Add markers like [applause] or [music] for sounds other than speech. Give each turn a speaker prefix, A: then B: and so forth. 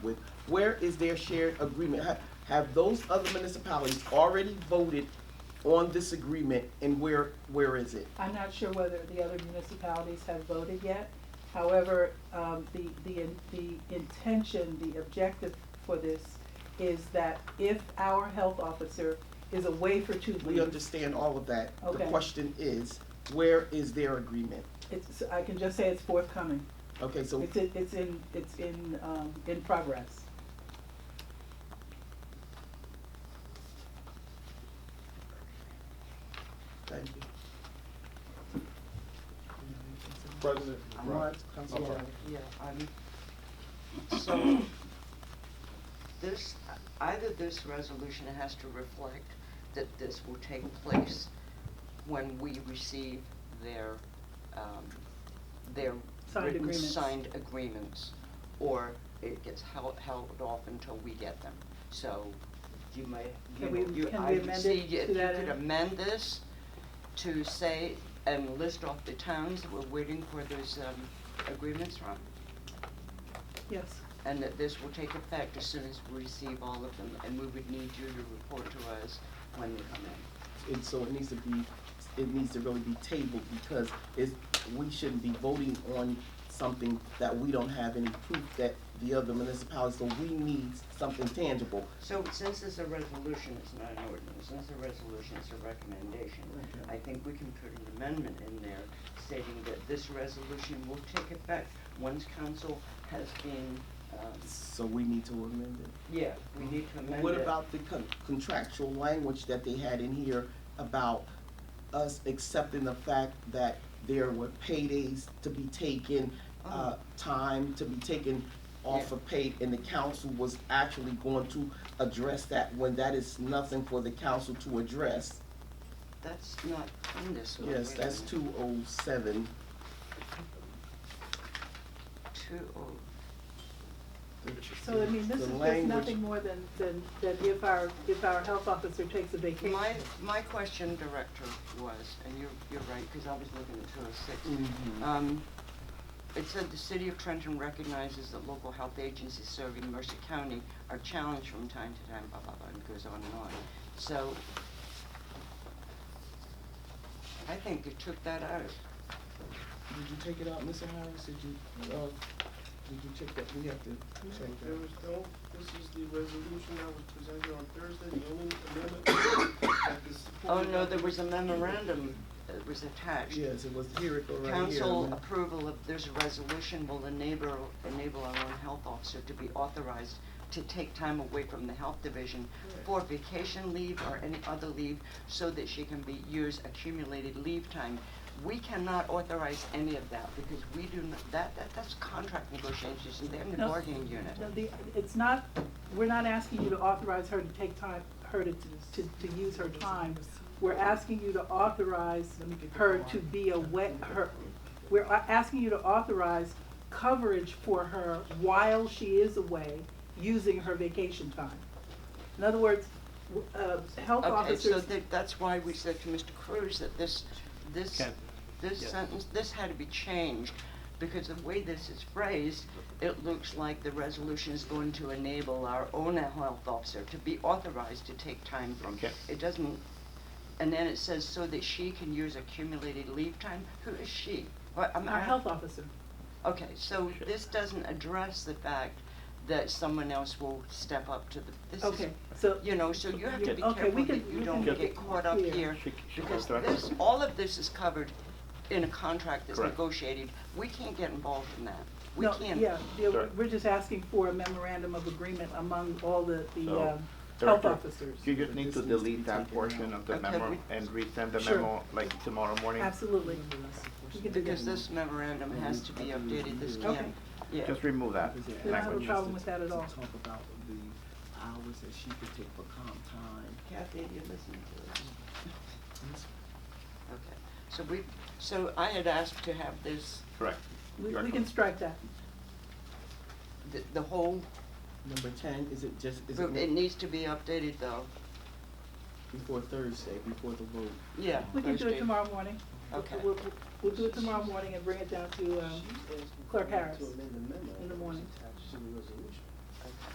A: with, where is their shared agreement? Ha- Have those other municipalities already voted on this agreement and where, where is it?
B: I'm not sure whether the other municipalities have voted yet. However, um, the, the, the intention, the objective for this is that if our health officer is away for two
A: We
B: weeks,
A: understand all of that. The
B: Mm-hmm. Okay.
A: question is, where is their agreement?
B: it's, I can just say it's forthcoming.
A: Okay, so
B: It's, in- it's in, it's in, um, in progress.
A: Thank you.
C: President
A: All right,
C: McBride.
A: Councilwoman.
C: Okay.
D: Yeah, I'm, so, this, either this resolution has to reflect that this will take place when we receive their, um, their
B: Signed
D: written
B: agreements.
D: signed agreements, or it gets held, held off until we get them. So, you may, you
B: Can we-
D: know, you,
B: can
D: I
B: we
D: would
B: amend
D: see
B: it
D: if
B: to
D: you
B: that
D: could
B: end?
D: amend this to say, and list off the towns that we're waiting for those, um, agreements from
B: Yes.
D: and that this will take effect as soon as we receive all of them, and we would need you to report to us when they come in.
A: And so it needs to be, it needs to really be tabled because it's, we shouldn't be voting on something that we don't have any proof that the other municipalities, so we need something tangible.
D: So since it's a resolution, it's not an ordinance, since a resolution is a recommendation,
A: Okay.
D: I think we can put an amendment in there stating that this resolution will take effect once council has been, um,
A: So we need to amend it.
D: yeah, we need to amend it.
A: What about the con- contractual language that they had in here about us accepting the fact that there were paydays to be taken,
D: Uh-huh.
A: uh, time to be taken off
D: Yeah.
A: of pay, and the council was actually going to address that when that is nothing for the council to address?
D: That's not in this one.
A: Yes,
D: wait a
A: that's
D: minute.
A: two oh seven,
D: Two oh,
B: So I mean,
A: The
B: this is just
A: language-
B: nothing more than, than, than if our, if our health officer takes a vacation.
D: My, my question, Director, was, and you're, you're right, because I was looking at two oh
A: Mhm.
D: six. Um, it said the city of Trenton recognizes that local health agencies serving Mercer County are challenged from time to time, blah, blah, blah, and it goes on and on. So, I think they took that out.
A: did you take it out, Mr. Harris, did you, uh, did you check that, we have to check
E: There
A: that.
E: was no, this is the resolution that was presented on Thursday, the only amendment [coughs] that the
D: Oh,
E: support.
D: no, there was a memorandum that was attached.
A: Yes, it was, here it go right here.
D: Council
A: man.
D: approval of this resolution will enable, enable our own health officer to be authorized to take time away from the health division for vacation leave or any other leave so that she can be, use accumulated leave time. We cannot authorize any of that because we do not, that, that, that's contract negotiations and they're in the
B: No.
D: bargaining unit.
B: No, the, it's not, we're not asking you to authorize her to take time, her to, to, to use her time. We're asking you to authorize her to be away, her, we're a- asking you to authorize coverage for her while she is away, using her vacation time. In other words, w- uh, health
D: Okay, so
B: officers,
D: that, that's why we said to Mr. Cruz that this, this,
F: Can-
D: this
F: yeah.
D: sentence, this had to be changed, because the way this is phrased, it looks like the resolution is going to enable our own health officer to be authorized to take time from.
F: Okay.
D: It doesn't, and then it says so that she can use accumulated leave time, who is she? What, I'm-
B: our
D: I-
B: health officer,
D: Okay, so this doesn't address the fact that someone else will step up to the, this is
B: okay, so.
D: you know, so you have to be
B: Okay, we
D: careful
B: can-
D: that you
B: we
D: don't
F: can-
D: get caught up
B: Yeah.
D: here,
F: She- she
D: because
F: goes directly.
D: this, all of this is covered in a contract that's
F: Correct.
D: negotiated. We can't get involved in that. We
B: No,
D: can't.
B: Yeah, yeah, we-
F: Right.
B: we're just asking for a memorandum of agreement among all the, the
F: So,
B: um, health
F: Director,
B: officers.
F: You just need to
A: This needs to be
F: delete that
A: taken
F: portion
A: out.
F: of the
D: Okay,
F: memo
D: we-
F: and resend the
B: Sure.
F: memo like tomorrow morning.
B: Absolutely. We can do
D: Because
B: that.
D: this memorandum has to be updated, this
A: Okay.
D: can't, yeah.
F: Just remove that
A: Because it
B: We don't have a
F: language.
B: problem with that at all.
A: To talk about the hours that she could take for comp time.
D: Kathy, you listening to this? Okay, so we, so I had asked to have this,
F: Correct.
B: We,
F: You are
B: we can
F: correct.
B: strike that.
D: the, the whole,
A: Number ten, is it just, is
D: it
A: it
D: needs to be updated though,
A: before Thursday, before the vote?
D: yeah.
B: We can do it
D: Thursday.
B: tomorrow morning.
D: Okay.
B: We'll, we'll- we'll do it tomorrow morning and bring it down to, um, Clerk Harris
E: To amend the memo.
B: in the morning.
E: that's attached to the resolution.